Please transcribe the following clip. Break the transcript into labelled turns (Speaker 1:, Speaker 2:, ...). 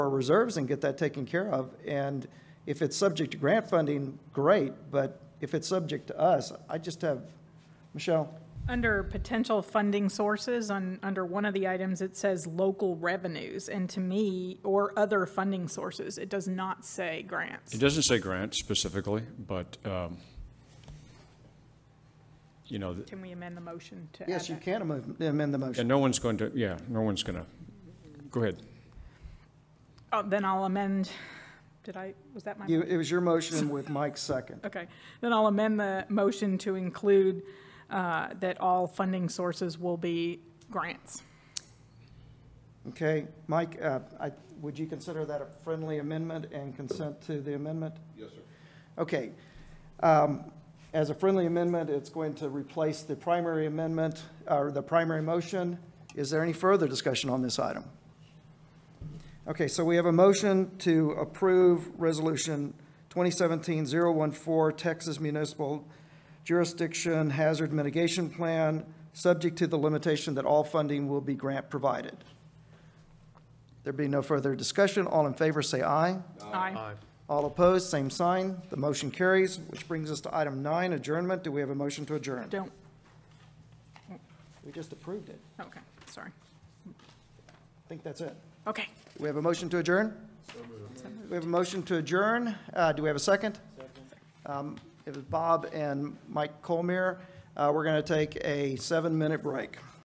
Speaker 1: our reserves and get that taken care of. And if it's subject to grant funding, great, but if it's subject to us, I just have, Michelle,
Speaker 2: Under potential funding sources, on, under one of the items, it says local revenues, and to me, or other funding sources, it does not say grants.
Speaker 3: It doesn't say grant specifically, but, um, you know, th-
Speaker 2: Can we amend the motion to add
Speaker 1: yes, you
Speaker 2: that?
Speaker 1: can amend amend the
Speaker 3: yeah,
Speaker 1: motion.
Speaker 3: no one's going to, yeah, no one's going to, go ahead.
Speaker 2: Oh, then I'll amend, did I, was that my?
Speaker 1: You, it was your motion with Mike's second.
Speaker 2: Okay, then I'll amend the motion to include uh, that all funding sources will be grants.
Speaker 1: Okay, Mike, uh, I, would you consider that a friendly amendment and consent to the amendment? Yes, sir. Okay. Um, As a friendly amendment, it's going to replace the primary amendment, or the primary motion. Is there any further discussion on this item? Okay, so we have a motion to approve Resolution 2017-014, Texas Municipal Jurisdiction Hazard Mitigation Plan, subject to the limitation that all funding will be grant-provided. There be no further discussion. All in favor, say aye.
Speaker 2: Aye.
Speaker 1: All opposed, same sign. The motion carries, which brings us to item nine, adjournment. Do we have a motion to adjourn?
Speaker 2: Don't,
Speaker 1: We just approved it.
Speaker 2: okay, sorry.
Speaker 1: I think that's it.
Speaker 2: Okay.
Speaker 1: We have a motion to adjourn? We have a motion to adjourn. Uh, Do we have a second? Um, It was Bob and Mike Colmeyer. Uh, We're going to take a seven-minute break.